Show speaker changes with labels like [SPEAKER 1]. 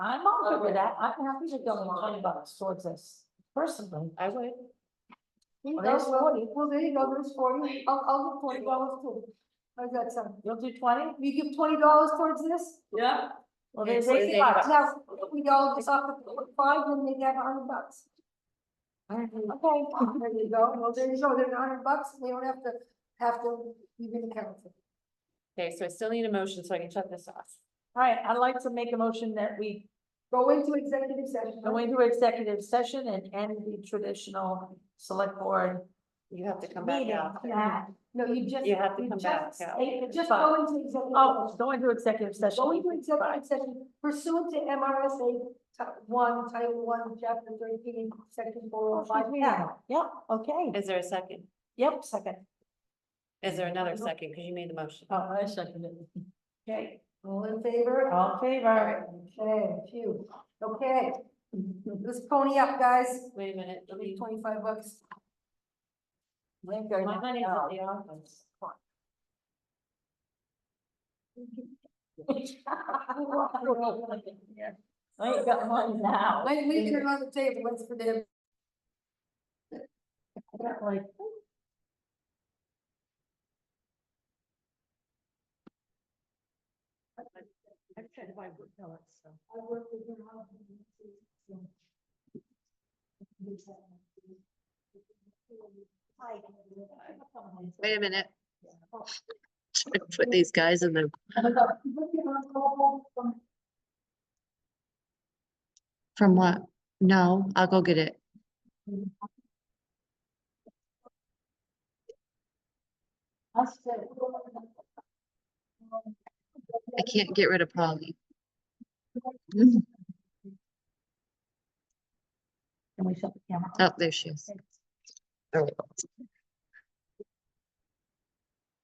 [SPEAKER 1] I'm all good with that. I'm happy to go in twenty bucks towards this personally.
[SPEAKER 2] I would.
[SPEAKER 3] There you
[SPEAKER 1] Well, there's
[SPEAKER 3] go, well,
[SPEAKER 1] 40.
[SPEAKER 3] Well, there you go, there's forty, I'll, I'll give forty dollars too. How's that sound?
[SPEAKER 1] You'll do twenty?
[SPEAKER 3] We give twenty dollars towards this?
[SPEAKER 4] Yeah.
[SPEAKER 1] Well,
[SPEAKER 2] Yes,
[SPEAKER 1] there's eighty bucks.
[SPEAKER 3] Now, if we all just off the five, then they get a hundred bucks. Okay, there you go, well, there you go, there's a hundred bucks, we don't have to, have to even count it.
[SPEAKER 2] Okay, so I still need a motion so I can shut this off.
[SPEAKER 1] All right, I'd like to make a motion that we
[SPEAKER 3] Go into executive session.
[SPEAKER 1] go into executive session and end the traditional select board.
[SPEAKER 2] You have to come back
[SPEAKER 1] meeting.
[SPEAKER 2] out.
[SPEAKER 3] Yeah, no, you just.
[SPEAKER 2] You have to come back
[SPEAKER 3] just-
[SPEAKER 2] out.
[SPEAKER 3] you Just go into executive.
[SPEAKER 1] Oh,
[SPEAKER 3] session.
[SPEAKER 1] go into executive session.
[SPEAKER 3] Go into executive session pursuant to MRSA ti- one, title one, chapter thirteen, section four oh five.
[SPEAKER 1] Yeah, yeah, okay.
[SPEAKER 2] Is there a second?
[SPEAKER 1] Yep, second.
[SPEAKER 2] Is there another second? Because you made the motion.
[SPEAKER 1] Oh, I second it. Okay,
[SPEAKER 3] All in favor?
[SPEAKER 1] all in favor.
[SPEAKER 3] Okay, phew, okay, let's pony up, guys,
[SPEAKER 2] Wait a minute. let
[SPEAKER 3] Give me
[SPEAKER 2] me-
[SPEAKER 3] twenty-five bucks.
[SPEAKER 2] My money's at the office.
[SPEAKER 1] I ain't got one now.
[SPEAKER 3] Wait, we can run the table, let's for them.
[SPEAKER 1] Like,
[SPEAKER 2] I've tried to buy wood pellets, so.
[SPEAKER 3] I work with your husband, so-
[SPEAKER 5] Wait a minute. Should I Put these guys in the, from what? No, I'll go get it. I can't get rid of Polly. Mm. Oh, there she is. There we go.